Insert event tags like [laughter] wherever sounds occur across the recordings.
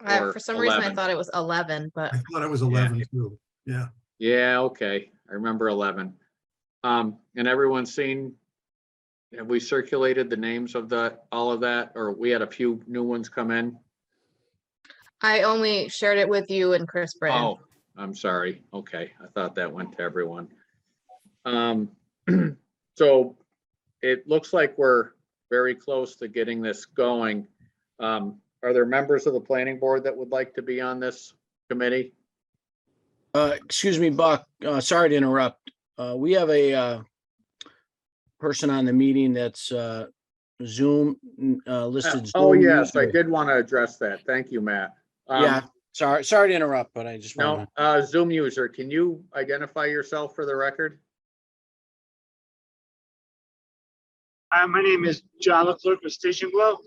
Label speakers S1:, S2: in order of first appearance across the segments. S1: I-
S2: Or
S1: For some reason, I
S2: 11.
S1: thought it was eleven, but
S3: I thought it was eleven too. Yeah,
S2: Yeah, okay, I remember eleven. Um, and everyone's seen, have we circulated the names of the, all of that, or we had a few new ones come in?
S1: I only shared it with you and Chris Britton.
S2: Oh, I'm sorry, okay, I thought that went to everyone. Um, [clears throat] so it looks like we're very close to getting this going. Um, are there members of the planning board that would like to be on this committee?
S4: Uh, excuse me, Buck, uh, sorry to interrupt. Uh, we have a, uh, person on the meeting that's, uh, Zoom, uh, listed.
S2: Oh,
S4: Zoom
S2: yes, I
S4: user.
S2: did want to address that, thank you, Matt. Um,
S4: Yeah, sorry, sorry to interrupt, but I just
S2: No,
S4: want
S2: uh, Zoom user, can you identify yourself for the record?
S5: Hi, my name is John Leclerc with Station Glow.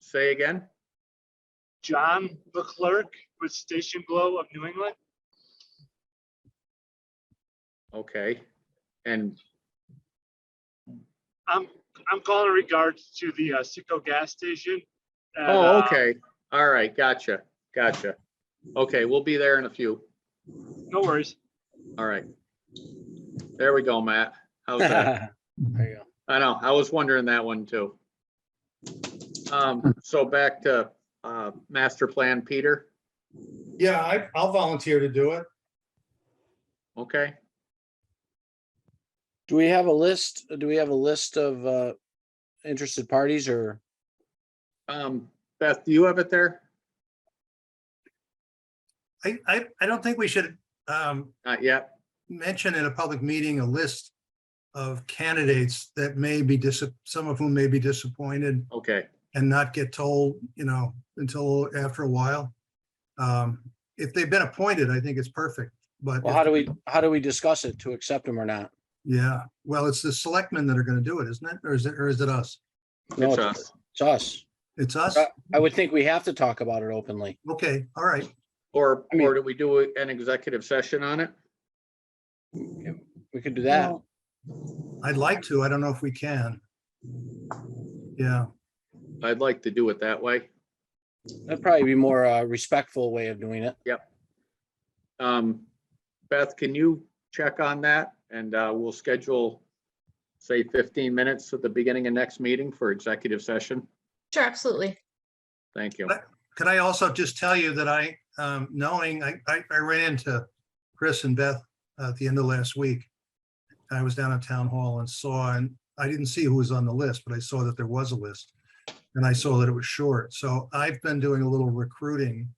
S2: Say again?
S5: John Leclerc with Station Glow of New England.
S2: Okay. And,
S5: I'm, I'm calling in regards to the uh, Sicko gas station. And,
S2: oh,
S5: uh,
S2: okay. All right, gotcha, gotcha. Okay, we'll be there in a few.
S5: No worries.
S2: All right. There we go, Matt. How's
S4: [laughs]
S2: that?
S4: to. There you go.
S2: I know, I was wondering that one too. Um, so back to, uh, master plan, Peter.
S3: yeah, I, I'll volunteer to do it.
S2: Okay,
S4: Do we have a list? Do we have a list of, uh, interested parties or?
S2: um, Beth, do you have it there?
S3: I, I, I don't think we should um,
S2: Not yet.
S3: mention in a public meeting a list of candidates that may be dis, some of whom may be disappointed
S2: Okay,
S3: and not get told, you know, until after a while. Um, If they've been appointed, I think it's perfect, but.
S4: Well, how do we, how do we discuss it to accept them or not?
S3: Yeah, well, it's the selectmen that are gonna do it, isn't it? Or is it, or is it us?
S4: No,
S2: it's us.
S4: It's us.
S3: It's us?
S4: Uh, I would think we have to talk about it openly.
S3: Okay, all right.
S2: Or,
S4: I mean-
S2: or do we do an executive session on it?
S4: We could do that.
S3: I'd like to. I don't know if we can. Yeah,
S2: I'd like to do it that way.
S4: That'd probably be more, uh, respectful way of doing it.
S2: Um, Beth, can you check on that? And, uh, we'll schedule, say fifteen minutes at the beginning of next meeting for executive session.
S1: Sure, absolutely.
S2: Thank you.
S3: could I also just tell you that I, um, knowing, I, I, I ran into Chris and Beth uh, at the end of last week. I was down at town hall and saw, and I didn't see who was on the list, but I saw that there was a list. And I saw that it was short. So I've been doing a little recruiting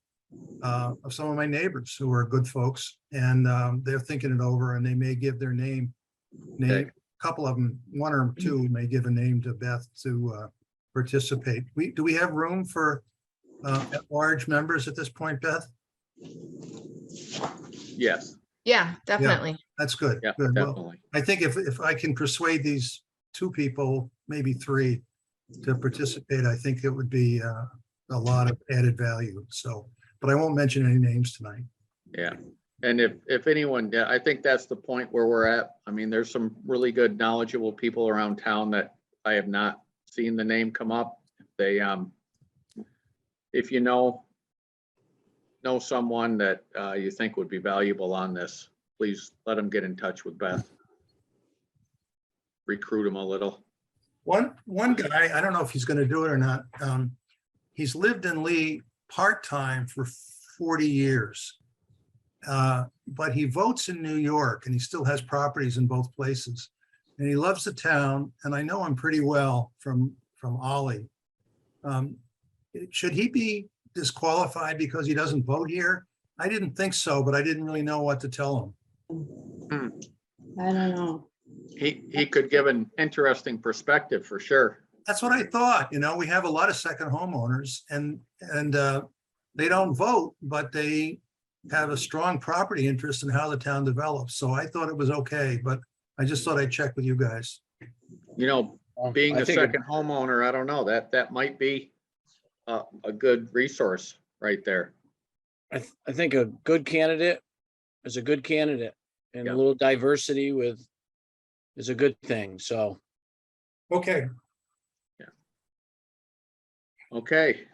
S3: uh, of some of my neighbors who are good folks and, um, they're thinking it over and they may give their name.
S2: Okay.
S3: Name, a couple of them, one or two may give a name to Beth to, uh, participate. We, do we have room for, uh, large members at this point, Beth?
S2: Yes,
S1: Yeah, definitely.
S3: That's good.
S2: yeah,
S3: Good. Well,
S2: definitely.
S3: I think if, if I can persuade these two people, maybe three, to participate, I think it would be uh, a lot of added value. So, but I won't mention any names tonight.
S2: Yeah. And if, if anyone, yeah, I think that's the point where we're at. I mean, there's some really good knowledgeable people around town that I have not seen the name come up. They, um, if you know, know someone that, uh, you think would be valuable on this, please let them get in touch with Beth. Recruit them a little.
S3: One, one guy, I don't know if he's going to do it or not. um, He's lived in Lee part-time for 40 years. Uh, But he votes in New York and he still has properties in both places. And he loves the town and I know him pretty well from, from Ollie. Um, it- Should he be disqualified because he doesn't vote here? I didn't think so, but I didn't really know what to tell him.
S6: I don't know.
S2: He, he could give an interesting perspective for sure.
S3: That's what I thought, you know, we have a lot of second homeowners and, and uh, they don't vote, but they have a strong property interest in how the town develops. So I thought it was okay, but I just thought I'd check with you guys.
S2: You know,
S4: Well,
S2: being
S4: I
S2: a
S4: think it-
S2: second homeowner, I don't know, that, that might be a, a good resource right there.
S4: I, th- I think a good candidate is a good candidate and
S2: Yeah.
S4: a little diversity with is a good thing. So.
S3: Okay,
S2: Okay,